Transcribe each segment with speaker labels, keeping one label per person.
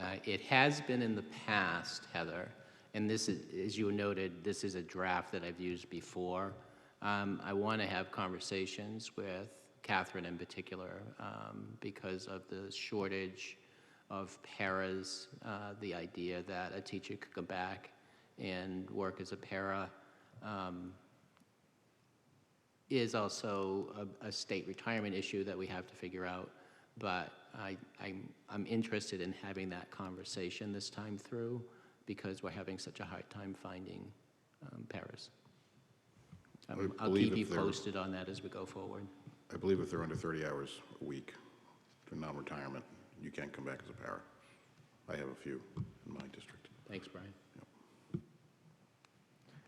Speaker 1: Uh, It has been in the past, Heather, and this is, as you noted, this is a draft that I've used before. Um, I want to have conversations with Catherine in particular um, because of the shortage of paras, uh, the idea that a teacher could go back and work as a para um, is also a, a state retirement issue that we have to figure out. But I, I'm, I'm interested in having that conversation this time through because we're having such a hard time finding um, paras. Um,
Speaker 2: I
Speaker 1: I'll
Speaker 2: believe
Speaker 1: keep
Speaker 2: if
Speaker 1: you
Speaker 2: they're-
Speaker 1: posted on that as we go forward.
Speaker 2: I believe if they're under 30 hours a week for non-retirement, you can't come back as a para. I have a few in my district.
Speaker 1: Thanks, Brian.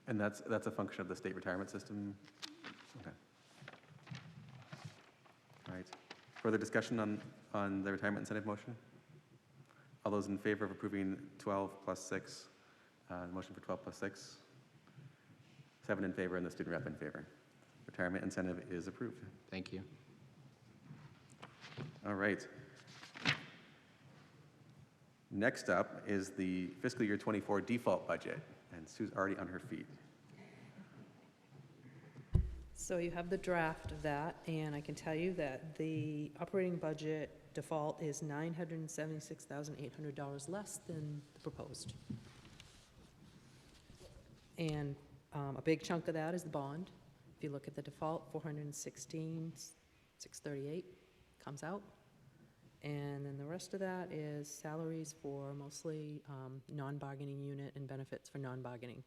Speaker 3: And that's, that's a function of the state retirement system? Okay. All right. Further discussion on, on the retirement incentive motion? All those in favor of approving 12 plus 6, uh, the motion for 12 plus 6? Seven in favor and the student rep in favor. Retirement incentive is approved.
Speaker 1: Thank you.
Speaker 3: All right. Next up is the fiscal year '24 default budget, and Sue's already on her feet.
Speaker 4: So you have the draft of that, and I can tell you that the operating budget default is nine hundred and seventy-six thousand eight hundred dollars less than the proposed. And um, a big chunk of that is the bond. If you look at the default, four hundred and sixteen, six thirty-eight comes out. And then the rest of that is salaries for mostly um, non-bargaining unit and benefits for non-bargaining.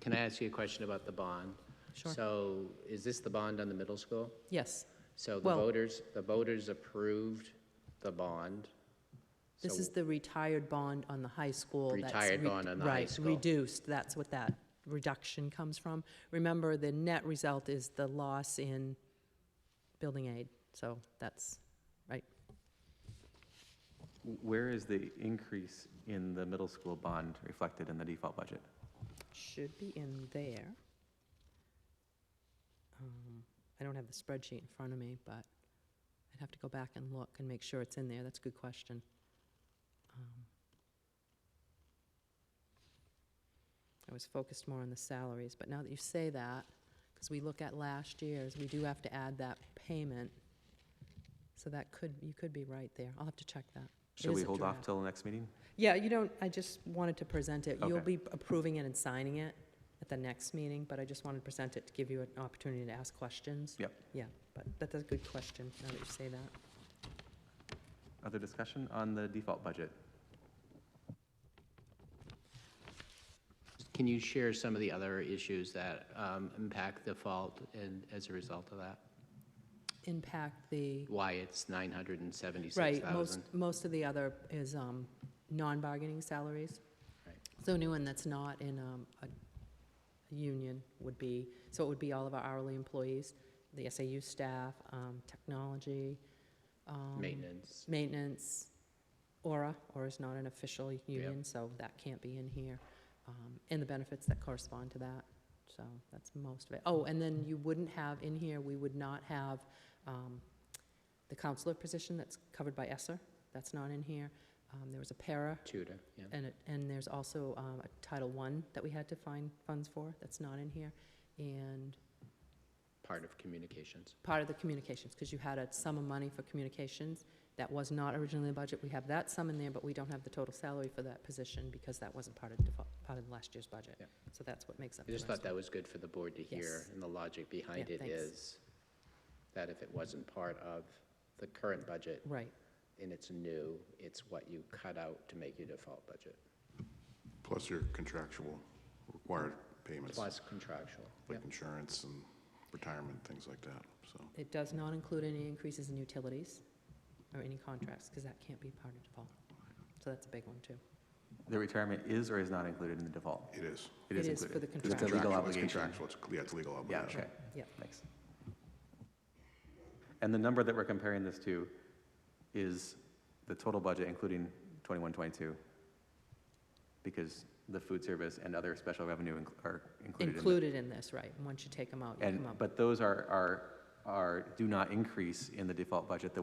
Speaker 1: Can I ask you a question about the bond?
Speaker 4: Sure.
Speaker 1: So is this the bond on the middle school?
Speaker 4: Yes,
Speaker 1: So the
Speaker 4: Well-
Speaker 1: voters, the voters approved the bond.
Speaker 4: This
Speaker 1: So-
Speaker 4: is the retired bond on the high school. that's
Speaker 1: Retired
Speaker 4: re-
Speaker 1: bond on the high
Speaker 4: right,
Speaker 1: school.
Speaker 4: reduced, that's what that reduction comes from. Remember, the net result is the loss in building aid, so that's, right.
Speaker 3: Where is the increase in the middle school bond reflected in the default budget?
Speaker 4: Should be in there. Um, I don't have the spreadsheet in front of me, but I'd have to go back and look and make sure it's in there, that's a good question. Um, I was focused more on the salaries, but now that you say that, because we look at last year's, we do have to add that payment. So that could, you could be right there, I'll have to check that. It
Speaker 3: Should
Speaker 4: is
Speaker 3: we
Speaker 4: a
Speaker 3: hold off
Speaker 4: draft.
Speaker 3: till the next meeting?
Speaker 4: Yeah, you don't, I just wanted to present it. You'll
Speaker 3: Okay.
Speaker 4: be approving it and signing it at the next meeting, but I just wanted to present it to give you an opportunity to ask questions.
Speaker 3: Yep.
Speaker 4: Yeah, but that's a good question, now that you say that.
Speaker 3: Other discussion on the default budget?
Speaker 1: Can you share some of the other issues that um, impact the fault and as a result of that?
Speaker 4: Impact the,
Speaker 1: Why it's 976,000?
Speaker 4: right, most, most of the other is um, non-bargaining salaries.
Speaker 1: Right.
Speaker 4: So anyone that's not in um, a a union would be, so it would be all of our hourly employees, the SAU staff, um, technology. um,
Speaker 1: Maintenance,
Speaker 4: maintenance, Aura, Aura's not an official union, so that can't be in here, um, and the benefits that correspond to that, so that's most of it. Oh, and then you wouldn't have in here, we would not have um, the counselor position that's covered by ESSER, that's not in here. Um, There was a para,
Speaker 1: tutor, yeah.
Speaker 4: and, it- and there's also um, a Title I that we had to find funds for, that's not in here, and
Speaker 1: part of communications.
Speaker 4: part of the communications, because you had a sum of money for communications that was not originally in the budget. We have that sum in there, but we don't have the total salary for that position because that wasn't part of, default- part of last year's budget.
Speaker 1: Yeah.
Speaker 4: So that's what makes up
Speaker 1: I
Speaker 4: the
Speaker 1: just
Speaker 4: rest.
Speaker 1: thought that was good for the board to hear,
Speaker 4: Yes.
Speaker 1: and the logic behind
Speaker 4: Yeah,
Speaker 1: it
Speaker 4: thanks.
Speaker 1: is that if it wasn't part of the current budget
Speaker 4: Right,
Speaker 1: and it's new, it's what you cut out to make your default budget,
Speaker 2: Plus your contractual required payments,
Speaker 1: plus contractual. Yeah.
Speaker 2: like insurance and retirement, things like that, so.
Speaker 4: it does not include any increases in utilities or any contracts, because that can't be part of default. So that's a big one, too.
Speaker 3: The retirement is or is not included in the default?
Speaker 2: It is.
Speaker 3: It is
Speaker 4: It is for
Speaker 3: included.
Speaker 4: the
Speaker 3: It's a
Speaker 4: contractual.
Speaker 3: legal
Speaker 2: Contractual, it's
Speaker 3: obligation.
Speaker 2: Contractual, it's, yeah, it's a legal
Speaker 3: Yeah,
Speaker 2: obligation.
Speaker 3: okay,
Speaker 4: Yep.
Speaker 3: thanks. And the number that we're comparing this to is the total budget, including 21, 22? Because the food service and other special revenue inc- are included in the
Speaker 4: Included in this, right, and once you take them out, you
Speaker 3: And,
Speaker 4: come up.
Speaker 3: but those are, are, are, do not increase in the default budget the way